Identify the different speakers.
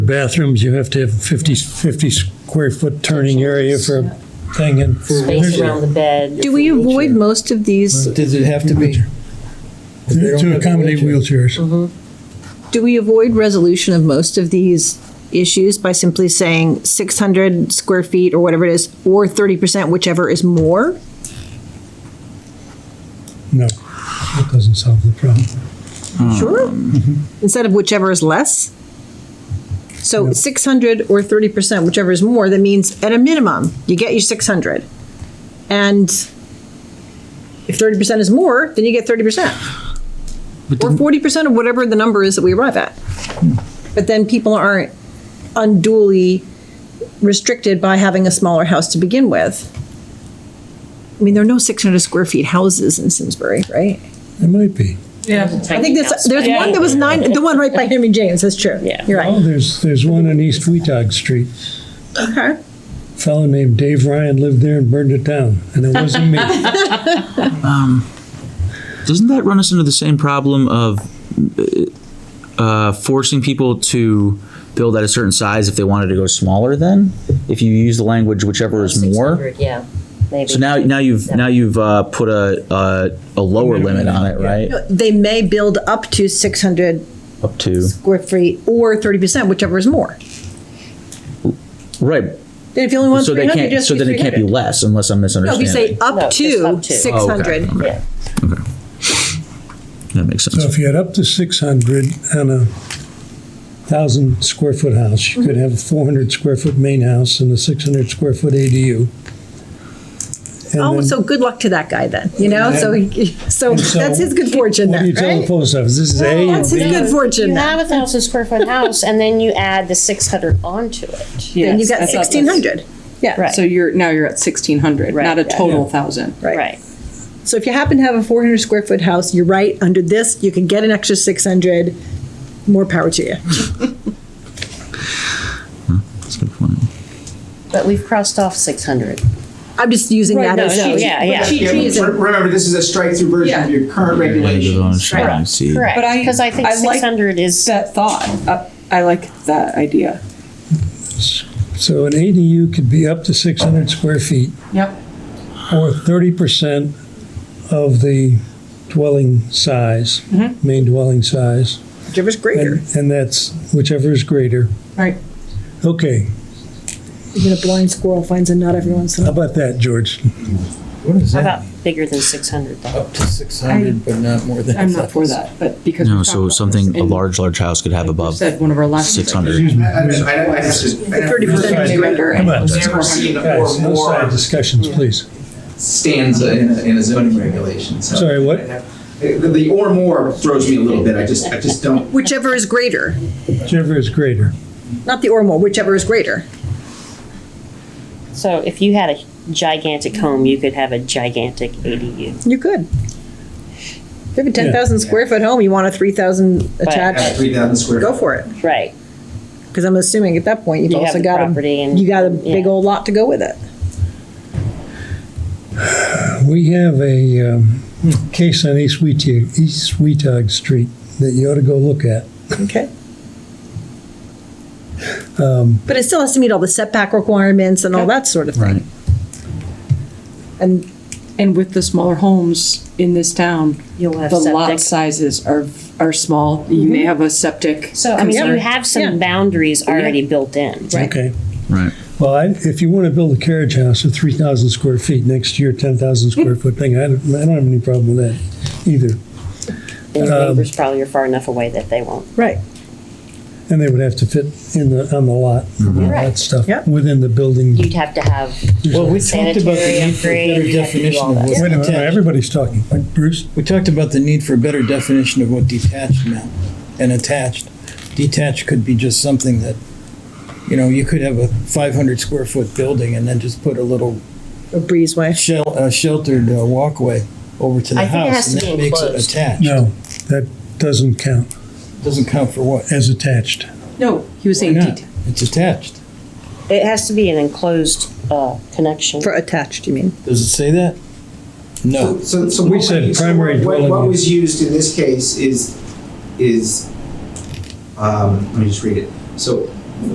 Speaker 1: bathrooms, you have to have 50, 50 square foot turning area for thing and. for
Speaker 2: space
Speaker 1: wheelchair.
Speaker 2: around the bed.
Speaker 3: Do we avoid most of these,
Speaker 4: Does it have to be? If they don't
Speaker 1: To
Speaker 4: have a
Speaker 1: accommodate wheelchairs.
Speaker 3: do we avoid resolution of most of these issues by simply saying 600 square feet or whatever it is, or 30%, whichever is more?
Speaker 1: No, that doesn't solve the problem.
Speaker 3: Sure. Instead of whichever is less? So 600 or 30%, whichever is more, that means at a minimum, you get your 600. And if 30% is more, then you get 30%. Or 40% of whatever the number is that we arrive at. But then people aren't unduly restricted by having a smaller house to begin with. I mean, there are no 600 square feet houses in Simsbury, right?
Speaker 1: It might be.
Speaker 3: I think there's, there's one that was nine, the one right by Henry James, that's true.
Speaker 2: Yeah.
Speaker 3: You're
Speaker 1: Oh,
Speaker 3: right.
Speaker 1: there's, there's one on East Weetag Street.
Speaker 3: Okay.
Speaker 1: Fellow named Dave Ryan lived there and burned it down, and it wasn't me.
Speaker 5: Doesn't that run us into the same problem of uh, forcing people to build at a certain size if they wanted to go smaller? Then, if you use the language whichever is more.
Speaker 2: 600, Yeah, maybe.
Speaker 5: So now, now you've now you've uh, put a, a a lower limit on it, right?
Speaker 3: They may build up to 600
Speaker 5: Up to
Speaker 3: square feet or 30%, whichever is more.
Speaker 5: right.
Speaker 3: Then if you only want
Speaker 5: So they
Speaker 3: 300,
Speaker 5: can't.
Speaker 3: just
Speaker 5: So
Speaker 3: do
Speaker 5: then it can't be
Speaker 3: 300.
Speaker 5: less, unless I'm
Speaker 3: No, if
Speaker 5: misunderstanding.
Speaker 3: you say
Speaker 2: No,
Speaker 3: up
Speaker 2: just up
Speaker 3: to
Speaker 2: to.
Speaker 3: 600.
Speaker 2: Yeah.
Speaker 5: that makes sense.
Speaker 1: So if you had up to 600 and a 1,000 square foot house, you could have a 400 square foot main house and a 600 square foot ADU. And
Speaker 3: Oh,
Speaker 1: then-
Speaker 3: so good luck to that guy then, you know, so, he- so
Speaker 1: so
Speaker 3: that's his good fortune
Speaker 1: What do you
Speaker 3: then,
Speaker 1: tell the
Speaker 3: right?
Speaker 1: post office? This is A and
Speaker 3: That's his
Speaker 1: B.
Speaker 3: good fortune
Speaker 2: You
Speaker 3: then.
Speaker 2: have a thousand square foot house and then you add the six hundred onto it.
Speaker 3: Then you've
Speaker 6: Yes,
Speaker 3: got
Speaker 6: I thought that's-
Speaker 3: 1,600. Yeah.
Speaker 2: Right.
Speaker 6: So you're, now you're at sixteen hundred,
Speaker 2: Right,
Speaker 6: not a
Speaker 2: yeah.
Speaker 6: total thousand.
Speaker 2: Right.
Speaker 3: So if you happen to have a 400 square foot house, you're right, under this, you can get an extra 600, more power to you.
Speaker 5: That's a good point.
Speaker 2: But we've crossed off six hundred.
Speaker 3: I'm just using that
Speaker 2: no,
Speaker 3: as.
Speaker 2: no, yeah, yeah.
Speaker 7: Yeah, re- Remember, this is a strike-through version of your current regulations.
Speaker 2: Correct,
Speaker 6: But I-
Speaker 2: because I think
Speaker 6: I like
Speaker 2: six hundred is,
Speaker 6: That thought, Uh, I like that idea.
Speaker 1: So an ADU could be up to 600 square feet
Speaker 6: Yep.
Speaker 1: or 30% of the dwelling size, main dwelling size.
Speaker 3: Whichever's
Speaker 1: And,
Speaker 3: Mm-hmm. greater.
Speaker 1: and that's whichever is greater.
Speaker 6: Right.
Speaker 1: Okay,
Speaker 3: Even a blind squirrel finds a nut every once in a
Speaker 1: how
Speaker 3: while.
Speaker 1: about that, George?
Speaker 4: What is
Speaker 2: how
Speaker 4: that?
Speaker 2: about bigger than six hundred though?
Speaker 4: Up to six hundred, but not more than.
Speaker 6: I'm not for that, but because. we
Speaker 5: No,
Speaker 6: talked
Speaker 5: so
Speaker 6: about this
Speaker 5: something a
Speaker 6: and
Speaker 5: large large house could have
Speaker 6: you
Speaker 5: above
Speaker 6: Said one of our last.
Speaker 5: six hundred.
Speaker 7: I- I- I- I- I have to- I have to-
Speaker 3: 30%
Speaker 7: I've
Speaker 6: is greater.
Speaker 1: Come on,
Speaker 7: Never seen a
Speaker 1: guys,
Speaker 7: or
Speaker 1: no
Speaker 7: more
Speaker 1: side discussions, please.
Speaker 7: stanza in a, in a zoning regulation, so.
Speaker 1: Sorry, what?
Speaker 7: The, the or more throws me a little bit, I just, I just don't.
Speaker 3: Whichever is greater,
Speaker 1: Whichever is greater.
Speaker 3: not the or more, whichever is greater.
Speaker 2: So if you had a gigantic home, you could have a gigantic ADU.
Speaker 3: You could. If you have a 10,000 square foot home, you want a 3,000
Speaker 2: uh,
Speaker 7: At
Speaker 3: attached,
Speaker 7: three thousand square.
Speaker 3: go for it.
Speaker 2: Right.
Speaker 3: Because I'm assuming at that point, you've
Speaker 2: You have
Speaker 3: also
Speaker 2: the
Speaker 3: got a,
Speaker 2: property and-
Speaker 3: you got a big
Speaker 2: yeah.
Speaker 3: old lot to go with it.
Speaker 1: We have a um, case on East Wheatog, East Wheatog Street that you ought to go look at.
Speaker 3: Okay. But it still has to meet all the setback requirements and all that sort of thing. And
Speaker 6: And with the smaller homes in this town,
Speaker 2: You'll have
Speaker 6: the lot
Speaker 2: septic. Mm-hmm.
Speaker 6: sizes are, are small. You may have a septic.
Speaker 2: So I mean, you
Speaker 6: concern.
Speaker 2: have
Speaker 3: Yeah.
Speaker 2: some boundaries already built in.
Speaker 1: Okay.
Speaker 5: Right.
Speaker 1: Well, I- if you want to build a carriage house of 3,000 square feet next year, 10,000 square foot thing, I don't, I don't have any problem with that either.
Speaker 2: And your neighbors probably are far enough away that they won't.
Speaker 3: Right.
Speaker 1: And they would have to fit in the, on the lot, and all that
Speaker 2: Right.
Speaker 1: stuff,
Speaker 3: Yep.
Speaker 1: within the building.
Speaker 2: You'd have to have
Speaker 4: Well, we talked about the
Speaker 2: Sanitary
Speaker 4: need for
Speaker 2: upgrade,
Speaker 4: better
Speaker 2: you have to do
Speaker 4: definition
Speaker 2: all
Speaker 4: of
Speaker 2: that.
Speaker 4: what
Speaker 1: Wait a minute,
Speaker 4: detached.
Speaker 1: everybody's talking. Bruce?
Speaker 4: We talked about the need for a better definition of what detached meant and attached. Detached could be just something that, you know, you could have a five hundred square foot building and then just put a little
Speaker 3: A breezeway.
Speaker 4: shel- uh, sheltered uh, walkway over to the
Speaker 2: I think it
Speaker 4: house.
Speaker 2: has
Speaker 4: and
Speaker 2: to
Speaker 4: that
Speaker 2: be
Speaker 4: makes it
Speaker 2: enclosed.
Speaker 4: Attached.
Speaker 1: No, that doesn't count
Speaker 4: Doesn't count for what?
Speaker 1: as attached.
Speaker 6: No, he was
Speaker 4: Why
Speaker 6: saying
Speaker 4: not?
Speaker 6: detail.
Speaker 4: It's attached.
Speaker 2: It has to be an enclosed uh, connection.
Speaker 3: For attached, you mean?
Speaker 4: Does it say that? No.
Speaker 7: So, so
Speaker 1: We
Speaker 7: what-
Speaker 1: said
Speaker 7: so
Speaker 1: primary
Speaker 7: what-
Speaker 1: dwelling
Speaker 7: What
Speaker 1: unit.
Speaker 7: was used in this case is, is, um, let me just read it. So